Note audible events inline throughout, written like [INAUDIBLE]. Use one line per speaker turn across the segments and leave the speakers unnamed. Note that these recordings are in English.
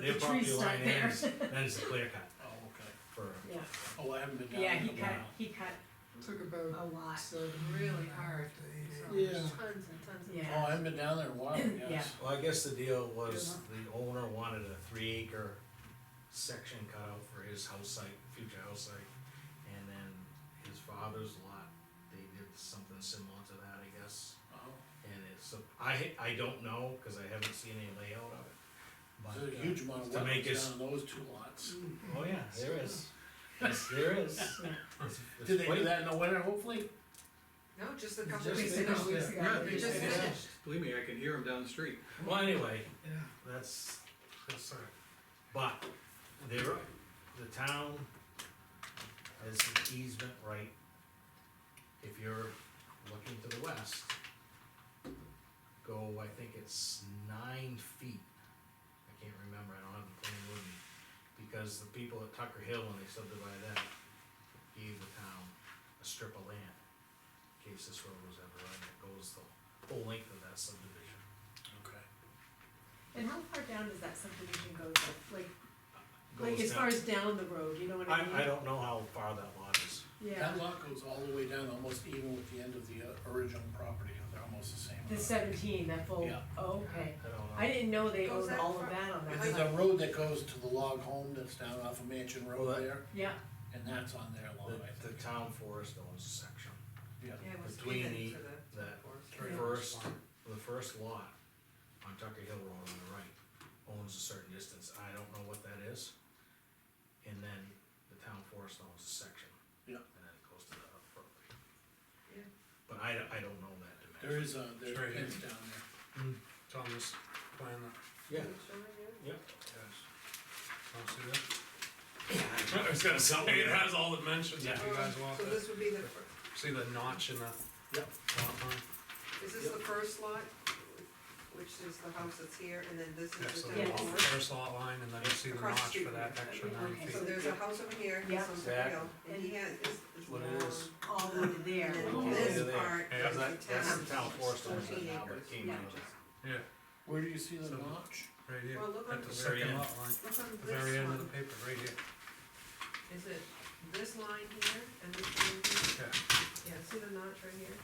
their
The
property
trees
line
start there.
ends, then it's a clear cut
Oh, okay.
[LAUGHS]
for,
Yeah,
Oh, I haven't been down
yeah,
there
he
in a
cut,
while.
he cut
Took
a
about
lot,
seven.
really hard,
to
Yeah.
eight hours.
Tons and tons of.
Yeah.
Oh, I haven't been down there in a while, yes.
well, I guess the deal was the owner wanted a three acre section cut out for his house site, future house site. And then his father's lot, they did something similar to that, I guess.
Oh,
And it's, a- I, I don't know, cause I haven't seen any layout of it.
There's
But,
a
uh,
huge amount of
to make
wetlands
his-
down in those two lots.
Mm.
Oh, yeah, there
[LAUGHS]
is, yes, there is. It's- it's
Did they
quite-
do that in the winter, hopefully?
No, just a
It's
couple
just
weeks
finished
ago.
weeks
there.
ago.
Yeah,
They just
yeah.
finished.
Believe me, I can hear him down the street.
Well, anyway,
Yeah.
that's, that's, uh, but there, the town has an easement right. If you're looking to the west, go, I think it's nine feet. I can't remember, I don't have the plan with me, because the people at Tucker Hill, when they subdivided that, gave the town a strip of land. In case this road was ever run, it goes the whole length of that subdivision.
Okay.
and how far down does that subdivision go, though? like, like
Goes
as
down
far as down the road, you know what I mean?
I, I don't know how far that lot is.
Yeah,
That lot goes all the way down, almost even with the end of the uh, original property, they're almost the same.
the
amount.
seventeen, that full,
Yeah.
oh, okay,
I don't know.
I didn't know they
Goes
owned
that
all of
far?
that on that
There's
side,
a road that goes to the log home that's down off of Mansion
Well,
Road
that-
there,
yeah,
and that's on their lot, Oh, I
The, the
think.
town forest owns a section,
Yeah.
Yeah, it was
Between
given
the-
to the
that
forest.
Yeah.
Uh,
first, the first lot on Tucker Hill Road on the right owns a certain distance, I don't know what that is. And then the town forest owns a section.
Yeah.
And then it goes to the other property.
Yeah.
But I, don't- I don't know that dimension.
There is a, there's
Straight in.
pins down there.
Thomas plan,
Yeah,
Can you show me here?
yep.
I'll see that.
[COUGHS] I was gonna sell
It has all the dimensions, if you
Um,
guys want
So
to
this would be the, fir-
see the notch in the.
Yep.
lot line.
is this the first lot, which is the house that's here, and then this
Yeah,
is
so
the
the
town
Yeah.
lot-
forest?
first lot line and then you see the
Across the
notch
street
for
from
that
that.
extra
Yeah,
nine
okay.
So
feet.
there's a house over here,
Yeah.
he's on Tucker Hill, and he has, this is
What it is.
long,
all the way to there, [LAUGHS]
And
All the
then
way to
this
there.
part
Yeah,
is the town.
That, that's the town forest owns it
14
now, but it
acres.
came
Yeah.
out of that.
Where do you see the
So-
notch?
Right here,
Well, look on,
at the
Very
second
end.
lot line,
look on
the very
this
end of the
one,
paper, right here,
is it this line here and this line here?
yeah.
Yeah, see the notch right here?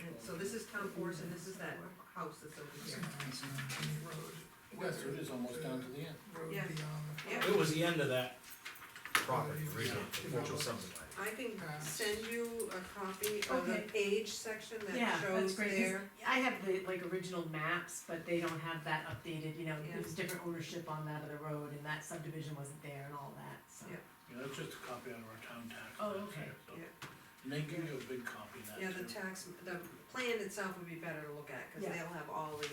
And so this is town forest and this is that house that's over here.
Yes, it is almost down to the end.
Yeah. Yeah,
It was the end of that property, originally,
Yeah.
which was subdivided.
I can send you a copy of the
Okay.
page section
yeah,
that
that's
shows
great, 'cause
there.
I have the, like, original maps, but they don't have that updated, you know,
Yeah.
there's different ownership on that other road, and that subdivision wasn't there and all that, so.
Yeah.
Yeah, that's just a copy out of our town tax.
Oh,
that's
okay.
there, so.
Yeah.
And they give you a big copy of that
Yeah, the
too.
tax, the plan itself would be better to look at, cause
Yeah.
they'll have all the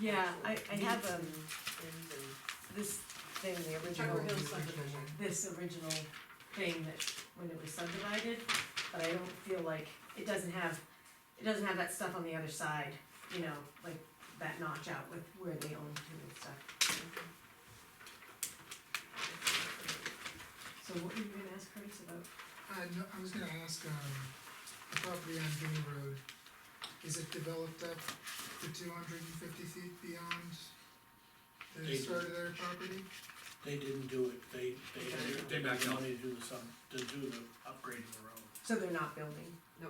Yeah, I, I have,
meets
um,
and things and.
this thing, the original.
Tucker Hill subdivision.
this original thing that, when it was subdivided, but I don't feel like, it doesn't have, it doesn't have that stuff on the other side, you know, like that notch out with where they own to and stuff. So what were you gonna ask Curtis about?
I, no, I was gonna ask, um, the property on Guinea Road, is it developed up to two hundred and fifty feet beyond the
They-
start of their property?
They didn't do it, they,
Okay.
they, they backed out. Money to do the sub, to do the upgrade of the road,
So they're not building,
Oh,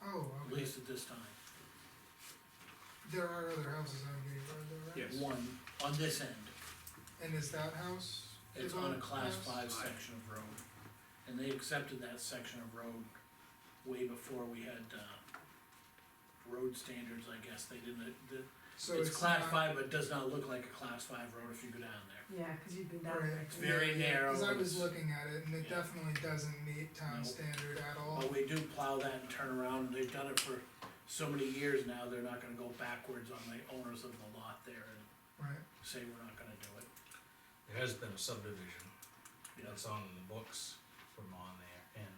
at
okay,
least at this time.
there are other houses on Guinea Road though, right?
Yes.
One, on this end,
And is that house
it's on a
developed
class
house?
five section of road. And they accepted that section of road way before we had, uh, road standards, I guess, they didn't, the,
So
it's
it's
class
not-
five, but it does not look like a class five road if you go down there.
yeah, cause you've been down
Right,
there.
It's very
yeah, yeah,
narrow,
Cause I was
it's-
looking at it and it
yeah.
definitely doesn't meet town
No.
standard at all.
But we do plow that and turn around, and they've done it for so many years now, they're not gonna go backwards on the owners of the lot there and
Right,
say we're not gonna do it.
There has been a subdivision
you know.
that's on the books from on there, and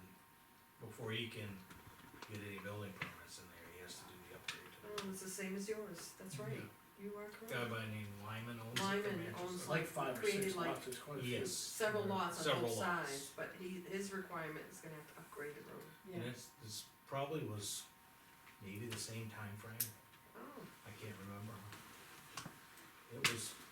before he can get any building permits in there, he has to do the upgrade.
Oh, it's the same as yours, that's right, you are correct.
Guy by the name Lyman owns it. from
Mm-hmm. Lyman
Manchester.
owns
It's like five or
Created
six
like-
lots, it's quite a few.
Yes.
Several lots on
Several
both
lots.
sides, but he, his requirement is gonna have to upgrade the road.
Yeah,
And it's, this probably was maybe the same time frame.
Oh,
I can't remember. It was